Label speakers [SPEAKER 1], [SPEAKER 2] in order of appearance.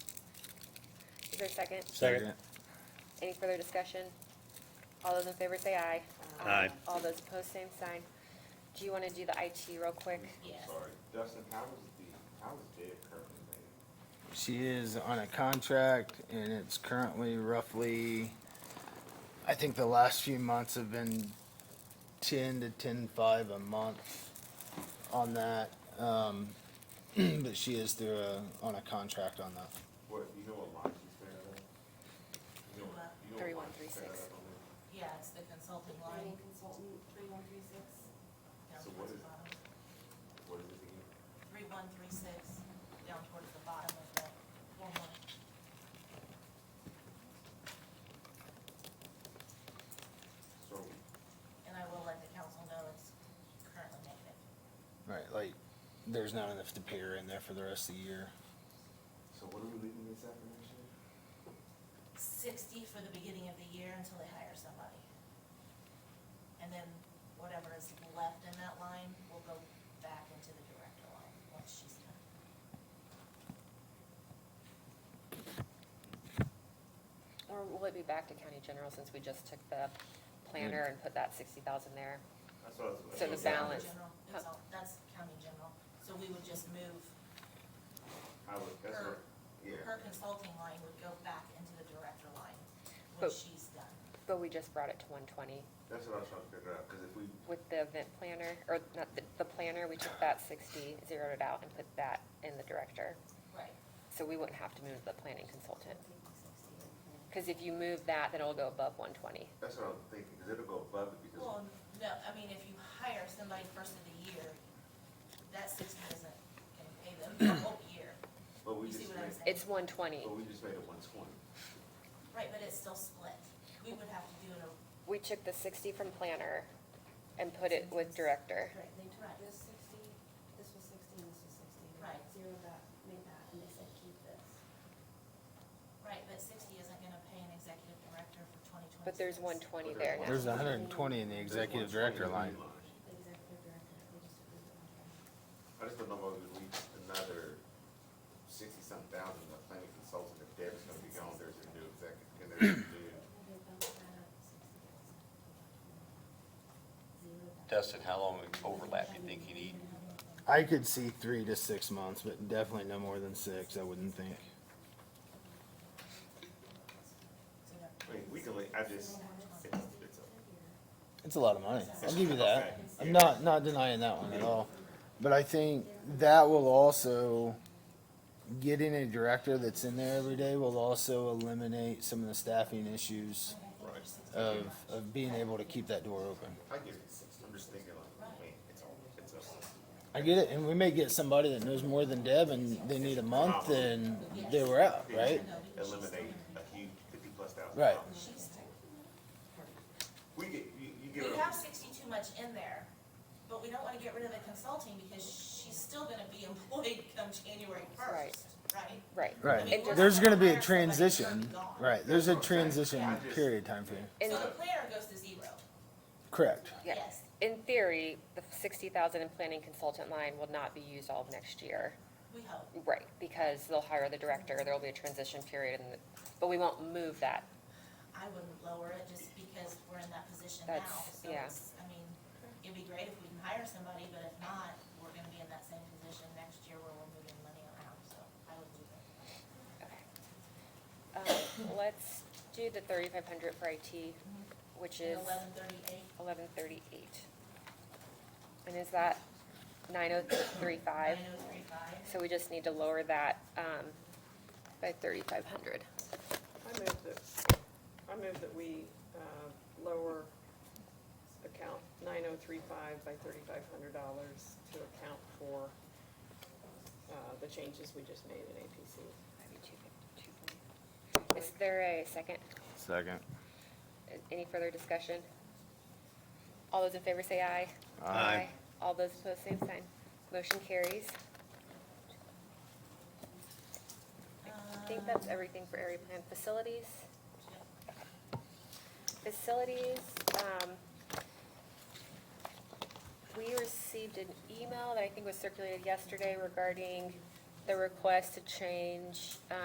[SPEAKER 1] there a second?
[SPEAKER 2] Second.
[SPEAKER 1] Any further discussion? All those in favor say aye.
[SPEAKER 2] Aye.
[SPEAKER 1] All those opposed, same sign. Do you want to do the IT real quick?
[SPEAKER 3] Yes.
[SPEAKER 4] Sorry, Dustin, how is the, how is Dave currently made?
[SPEAKER 5] She is on a contract and it's currently roughly, I think the last few months have been ten to ten-five a month on that. Um, but she is through a, on a contract on that.
[SPEAKER 4] What, you know what line she's made out of? You know what- you know what
[SPEAKER 1] Three one
[SPEAKER 4] line
[SPEAKER 1] three
[SPEAKER 4] she's made
[SPEAKER 1] six.
[SPEAKER 4] out of?
[SPEAKER 3] Yeah, it's the consulting line.
[SPEAKER 6] Consultant, three one three six.
[SPEAKER 3] down
[SPEAKER 4] So what
[SPEAKER 3] towards
[SPEAKER 4] is
[SPEAKER 3] the
[SPEAKER 4] it?
[SPEAKER 3] bottom.
[SPEAKER 4] What is it again?
[SPEAKER 3] Three one three six, down towards the bottom of the form line.
[SPEAKER 4] So,
[SPEAKER 3] And I will let the council know it's currently negative.
[SPEAKER 5] Right, like, there's not enough to pay her in there for the rest of the year.
[SPEAKER 4] so what are we leaving this after next year?
[SPEAKER 3] Sixty for the beginning of the year until they hire somebody. And then whatever is left in that line will go back into the director line once she's done.
[SPEAKER 1] Or will it be back to county general since we just took the planner
[SPEAKER 2] Mm.
[SPEAKER 1] and put that sixty thousand there?
[SPEAKER 4] That's what I was-
[SPEAKER 1] So the
[SPEAKER 4] that's what I was-
[SPEAKER 1] balance.
[SPEAKER 3] General, It's all, that's county general, so we would just move,
[SPEAKER 4] I was, that's
[SPEAKER 3] Her-
[SPEAKER 4] what, yeah.
[SPEAKER 3] her consulting line would go back into the director line when
[SPEAKER 1] But-
[SPEAKER 3] she's done.
[SPEAKER 1] But we just brought it to one twenty
[SPEAKER 4] That's what I was trying to figure out, because if we,
[SPEAKER 1] with the event planner, or not, the, the planner, we took that sixty, zeroed it out and put that in the director.
[SPEAKER 3] Right.
[SPEAKER 1] So we wouldn't have to move the planning consultant. Because if you move that, then it'll go above one twenty.
[SPEAKER 4] that's what I was thinking, because it'll go above it, because
[SPEAKER 3] Well, no, I mean, if you hire somebody first of the year, that sixty isn't gonna pay them the whole year.
[SPEAKER 4] But we
[SPEAKER 3] You see
[SPEAKER 4] just
[SPEAKER 3] what I'm
[SPEAKER 4] made,
[SPEAKER 3] saying?
[SPEAKER 1] It's one twenty.
[SPEAKER 4] but we just made it one twenty.
[SPEAKER 3] Right, but it's still split. We would have to do it, a-
[SPEAKER 1] We took the sixty from planner and put it with director.
[SPEAKER 6] Right, they took this sixty, this was sixty, and this was sixty. They
[SPEAKER 3] Right.
[SPEAKER 6] Zeroed that, made that, and they said keep this.
[SPEAKER 3] right, but sixty isn't gonna pay an executive director for twenty twenty-six.
[SPEAKER 1] But there's one twenty there now.
[SPEAKER 5] There's hundred and twenty in the executive director line.
[SPEAKER 6] The executive director, they just approved it on
[SPEAKER 4] I
[SPEAKER 6] Friday.
[SPEAKER 4] just don't know whether we need another sixty-some thousand, the planning consultant, if Deb's gonna be gone, there's a new executive, and there's a new.
[SPEAKER 6] They bumped that up sixty thousand. Zeroed that.
[SPEAKER 2] Dustin, how long overlap do you think you need?
[SPEAKER 5] I could see three to six months, but definitely no more than six, I wouldn't think.
[SPEAKER 4] I mean, we can, like, I just, it's, it's, a-
[SPEAKER 5] It's a lot of money. I'll give you that. I'm not, not denying that one at all. But I think that will also, getting a director that's in there every day will also eliminate some of the staffing issues
[SPEAKER 4] right,
[SPEAKER 5] of, of being able to keep that door open.
[SPEAKER 4] I get it, I'm just thinking like, man, it's all, it's a,
[SPEAKER 5] I get it, and we may get somebody that knows more than Deb and they need a month and they were out, right?
[SPEAKER 4] eliminate a huge fifty-plus thousand.
[SPEAKER 5] Right.
[SPEAKER 4] dollars. We get, you, you give
[SPEAKER 3] We
[SPEAKER 4] it,
[SPEAKER 3] have
[SPEAKER 4] a-
[SPEAKER 3] sixty too much in there, but we don't wanna get rid of the consulting because she's still gonna be employed come January first, right?
[SPEAKER 1] Right.
[SPEAKER 5] Right.
[SPEAKER 1] And just-
[SPEAKER 5] There's gonna be a transition, right, there's a transition period time frame.
[SPEAKER 1] And-
[SPEAKER 3] So the planner goes to zero,
[SPEAKER 5] Correct.
[SPEAKER 1] Yeah.
[SPEAKER 3] yes.
[SPEAKER 1] In theory, the sixty thousand in planning consultant line will not be used all of next year.
[SPEAKER 3] We hope.
[SPEAKER 1] Right, because they'll hire the director, there'll be a transition period, and, but we won't move that.
[SPEAKER 3] I wouldn't lower it just because we're in that position now.
[SPEAKER 1] That's-
[SPEAKER 3] So
[SPEAKER 1] yeah.
[SPEAKER 3] it's- I mean, it'd be great if we can hire somebody, but if not, we're gonna be in that same position next year where we're moving money around, so I would leave it.
[SPEAKER 1] Um, Let's do the thirty-five hundred for IT, which is
[SPEAKER 3] Eleven thirty-eight,
[SPEAKER 1] eleven thirty-eight. And is that nine oh three five?
[SPEAKER 3] nine oh three five.
[SPEAKER 1] So we just need to lower that, um, by thirty-five hundred.
[SPEAKER 7] I move that, I move that we uh, lower account 9035 by $3,500 to account for uh, the changes we just made in APC.
[SPEAKER 1] Is there a second?
[SPEAKER 5] Second.
[SPEAKER 1] Any further discussion? All those in favor say aye.
[SPEAKER 2] Aye.
[SPEAKER 1] All those opposed, same sign. Motion carries. I think that's
[SPEAKER 3] Um,
[SPEAKER 1] everything for area plan facilities. Facilities, um, we received an email that I think was circulated yesterday regarding the request to change,